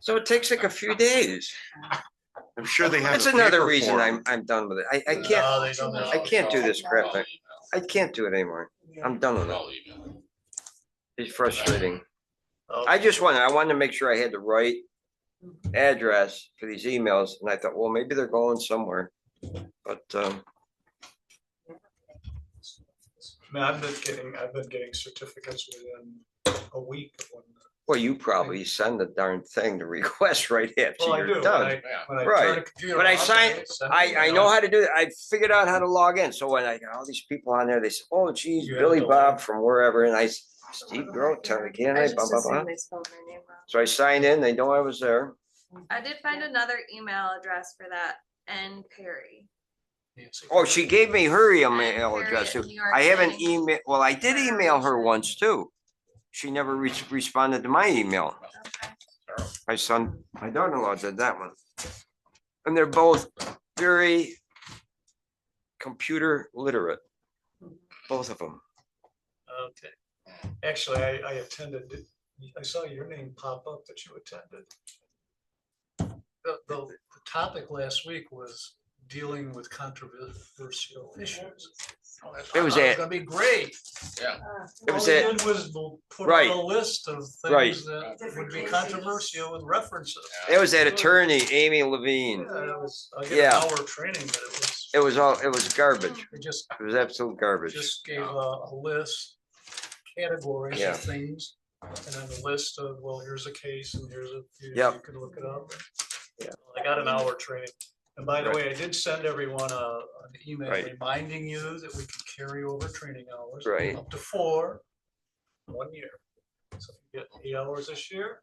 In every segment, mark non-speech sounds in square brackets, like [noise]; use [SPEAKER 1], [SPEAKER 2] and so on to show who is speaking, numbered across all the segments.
[SPEAKER 1] So it takes like a few days.
[SPEAKER 2] I'm sure they have.
[SPEAKER 1] That's
[SPEAKER 2] a
[SPEAKER 1] another
[SPEAKER 2] paper
[SPEAKER 1] reason
[SPEAKER 2] form.
[SPEAKER 1] I'm, I'm done with it. I, I
[SPEAKER 3] No,
[SPEAKER 1] can't,
[SPEAKER 3] they don't
[SPEAKER 1] I can't do this crap. I, I can't do it anymore. I'm done with it.
[SPEAKER 3] I'll email it.
[SPEAKER 1] It's frustrating. I just wanted, I wanted to make sure I had the right address for these emails and I thought, well, maybe they're going somewhere. But, um,
[SPEAKER 4] mean, I've been getting, I've been getting certificates within a week of when.
[SPEAKER 1] well, you probably send the darn thing, the request right after
[SPEAKER 4] Well, I do,
[SPEAKER 1] you're
[SPEAKER 4] when
[SPEAKER 1] done.
[SPEAKER 4] I, when I turn the
[SPEAKER 1] Right.
[SPEAKER 4] computer
[SPEAKER 1] But I
[SPEAKER 4] off,
[SPEAKER 1] sign-
[SPEAKER 4] send it,
[SPEAKER 1] I,
[SPEAKER 4] you
[SPEAKER 1] I know how to do it. I figured out how to log in. So when I got all these people on there, they said, oh geez,
[SPEAKER 4] You had
[SPEAKER 1] Billy
[SPEAKER 4] no
[SPEAKER 1] Bob from wherever. And I, s- Steve Grote, Terry
[SPEAKER 5] I
[SPEAKER 1] Kennedy, eh, blah,
[SPEAKER 5] just
[SPEAKER 1] blah, blah.
[SPEAKER 5] assumed they spelled my name wrong.
[SPEAKER 1] So I signed in, they know I was there.
[SPEAKER 6] I did find another email address for that, N Perry.
[SPEAKER 4] Nancy.
[SPEAKER 1] Oh, she gave me her
[SPEAKER 6] Ann
[SPEAKER 1] email
[SPEAKER 6] Perry
[SPEAKER 1] address. too.
[SPEAKER 6] at New York
[SPEAKER 1] I e- haven't
[SPEAKER 6] City.
[SPEAKER 1] email, well, I did email her once too. She never re- responded to my email.
[SPEAKER 6] Okay.
[SPEAKER 1] My son, my daughter-in-law did that one. And they're both very computer literate. Both of them.
[SPEAKER 4] Okay. Actually, I, I attended, I saw your name pop up that you attended. The, the, the topic last week was dealing with controversial issues. Oh, I thought
[SPEAKER 1] was
[SPEAKER 4] that
[SPEAKER 1] at-
[SPEAKER 4] Gonna be great.
[SPEAKER 1] It
[SPEAKER 4] All
[SPEAKER 1] was
[SPEAKER 4] we
[SPEAKER 1] at-
[SPEAKER 4] did was we'll put
[SPEAKER 1] Right.
[SPEAKER 4] on a list of
[SPEAKER 1] Right.
[SPEAKER 4] things that would
[SPEAKER 5] Different
[SPEAKER 4] be
[SPEAKER 5] cases.
[SPEAKER 4] controversial with references.
[SPEAKER 1] It was that attorney, Amy
[SPEAKER 4] Yeah,
[SPEAKER 1] Levine.
[SPEAKER 4] it was, I did an
[SPEAKER 1] Yeah.
[SPEAKER 4] hour training, but it was,
[SPEAKER 1] It was all, it was garbage.
[SPEAKER 4] it just,
[SPEAKER 1] It was absolute garbage.
[SPEAKER 4] just gave a, a list, categories
[SPEAKER 1] Yeah.
[SPEAKER 4] of things. And then a list of, well, here's a case and here's a, you you
[SPEAKER 1] Yep.
[SPEAKER 4] can look it up.
[SPEAKER 1] Yeah.
[SPEAKER 4] I got an hour training. And by the
[SPEAKER 1] Right.
[SPEAKER 4] way, I did send everyone a, an email
[SPEAKER 1] Right.
[SPEAKER 4] reminding you that we could carry over training hours.
[SPEAKER 1] Right.
[SPEAKER 4] Up to four, in one year. So if you get eight hours this year,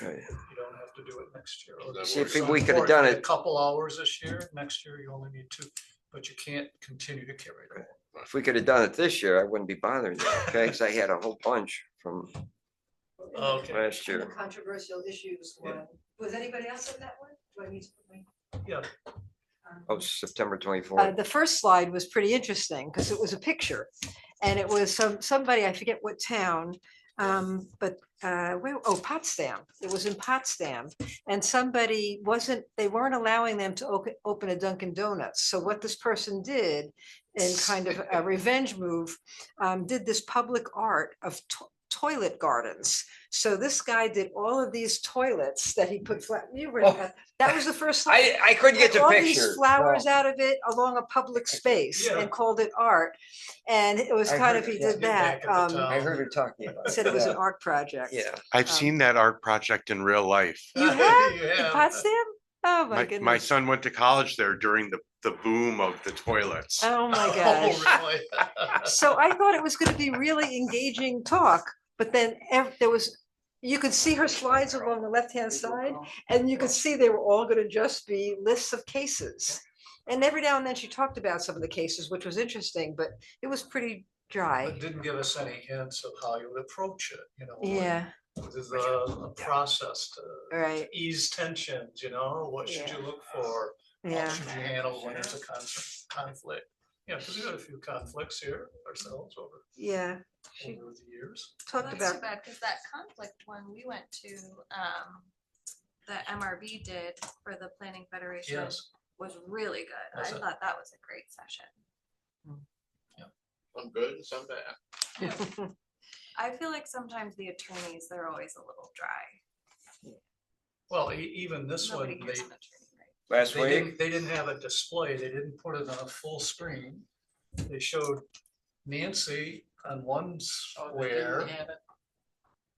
[SPEAKER 4] you don't have to do it next year. or
[SPEAKER 3] That
[SPEAKER 4] the
[SPEAKER 3] See,
[SPEAKER 4] year
[SPEAKER 3] if we
[SPEAKER 4] before.
[SPEAKER 1] could've
[SPEAKER 4] If you
[SPEAKER 1] done
[SPEAKER 4] get A
[SPEAKER 1] it-
[SPEAKER 4] couple hours this year, next year you only need two, but you can't continue to carry it. over.
[SPEAKER 1] If we could have done it this year, I wouldn't be bothering you, okay? Because I had a whole bunch from
[SPEAKER 4] Okay,
[SPEAKER 1] last
[SPEAKER 5] And the
[SPEAKER 1] year.
[SPEAKER 5] Controversial issues
[SPEAKER 4] Yeah.
[SPEAKER 5] one. Was anybody else at that one? Do I need to put my-
[SPEAKER 4] yeah,
[SPEAKER 5] um,
[SPEAKER 1] Oh, September
[SPEAKER 7] Uh,
[SPEAKER 1] twenty-fourth.
[SPEAKER 7] the first slide was pretty interesting because it was a picture. And it was some, somebody, I forget what town, um, but, uh, where, oh, Potsdam. It was in Potsdam. And somebody wasn't, they weren't allowing them to open, open a Dunkin' Donuts. So what this person did in kind of a revenge move, um, did this public art of to- toilet gardens. So this guy did all of these toilets that he put flat, you were,
[SPEAKER 1] Oh.
[SPEAKER 7] that was the first. slide
[SPEAKER 1] I, I couldn't get
[SPEAKER 7] cut
[SPEAKER 1] the
[SPEAKER 7] all
[SPEAKER 1] picture.
[SPEAKER 7] these flowers out of it along a public space
[SPEAKER 4] Yeah.
[SPEAKER 7] and called it art. And it was
[SPEAKER 1] I
[SPEAKER 7] kind
[SPEAKER 1] heard
[SPEAKER 7] of, he
[SPEAKER 1] it, yeah.
[SPEAKER 7] did
[SPEAKER 4] Get back
[SPEAKER 7] that.
[SPEAKER 4] at the
[SPEAKER 7] um,
[SPEAKER 4] top.
[SPEAKER 1] I heard her talking about.
[SPEAKER 7] Said it was an
[SPEAKER 1] Yeah.
[SPEAKER 7] art project.
[SPEAKER 1] Yeah,
[SPEAKER 2] I've
[SPEAKER 7] um,
[SPEAKER 2] seen that art project in real life.
[SPEAKER 4] [laughs]
[SPEAKER 7] You have?
[SPEAKER 4] You
[SPEAKER 7] In
[SPEAKER 4] have.
[SPEAKER 7] Potsdam? Oh, my
[SPEAKER 2] My, my
[SPEAKER 7] goodness.
[SPEAKER 2] son went to college there during the, the boom of the toilets.
[SPEAKER 7] Oh, my
[SPEAKER 4] [laughs] Oh,
[SPEAKER 7] gosh.
[SPEAKER 4] really?
[SPEAKER 7] So I thought it was going to be really engaging talk, but then ev- there was, you could see her slides along the left-hand side and you could see they were all going to just be lists of cases. And every now and then she talked about some of the cases, which was interesting, but it was pretty dry.
[SPEAKER 4] But Didn't give us any hints of how you would approach it, you know? like,
[SPEAKER 7] Yeah,
[SPEAKER 4] This is a a process to
[SPEAKER 7] right.
[SPEAKER 4] ease tensions, you know, what should you look for? How
[SPEAKER 7] Yeah.
[SPEAKER 4] should you handle when there's a con- conflict? Yeah, because we've had a few conflicts here ourselves over,
[SPEAKER 7] Yeah, She-
[SPEAKER 4] over the years.
[SPEAKER 7] talked
[SPEAKER 6] That's too
[SPEAKER 7] about,
[SPEAKER 6] bad, because that conflict one, we went to, um, the MRB did for the Planning Federation
[SPEAKER 4] Yes,
[SPEAKER 6] was really good. I
[SPEAKER 4] Was it?
[SPEAKER 6] thought that was a great session.
[SPEAKER 3] I'm good, and some bad.
[SPEAKER 6] I feel like sometimes the attorneys, they're always a little dry.
[SPEAKER 4] well, e- even this one,
[SPEAKER 6] Nobody
[SPEAKER 4] they,
[SPEAKER 6] hears an attorney, right?
[SPEAKER 1] last
[SPEAKER 4] They
[SPEAKER 1] week,
[SPEAKER 4] didn't, they didn't have a display, they didn't put it on a full screen. They showed Nancy on one square.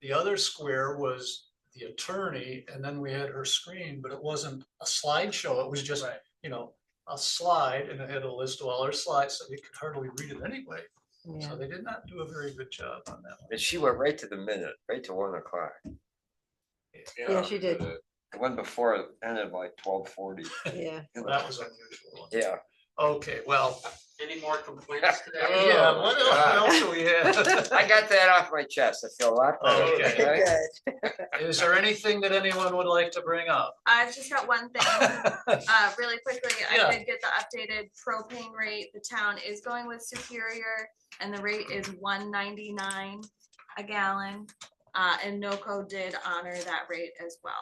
[SPEAKER 4] The other square was the attorney, and then we had her screen, but it wasn't a slideshow, it was just, you know, a slide, and it had a list of all her slides, so you could hardly read it anyway.
[SPEAKER 7] yeah.
[SPEAKER 4] So they did not do a very good job on that. one.
[SPEAKER 1] and she went right to the minute, right to one o'clock.
[SPEAKER 7] Yeah, she did.
[SPEAKER 1] The one before it ended like twelve forty.
[SPEAKER 7] Yeah,
[SPEAKER 4] That was unusual.
[SPEAKER 1] Yeah. [laughs]
[SPEAKER 4] Okay, well,
[SPEAKER 8] Any more complaints today?
[SPEAKER 4] yeah, what else-
[SPEAKER 2] Ah.
[SPEAKER 4] what
[SPEAKER 1] God.
[SPEAKER 4] else do we have?
[SPEAKER 1] I got that off my chest. I feel a lot better.
[SPEAKER 4] Oh, Okay.
[SPEAKER 1] okay?
[SPEAKER 7] good.
[SPEAKER 4] Is there anything that anyone would like to bring up?
[SPEAKER 6] I've just got one thing. Uh, really quickly,
[SPEAKER 4] Yeah.
[SPEAKER 6] I did get the updated propane rate. The town is going with Superior and the rate is one ninety-nine a gallon. Uh, and NOCO did honor that rate as well.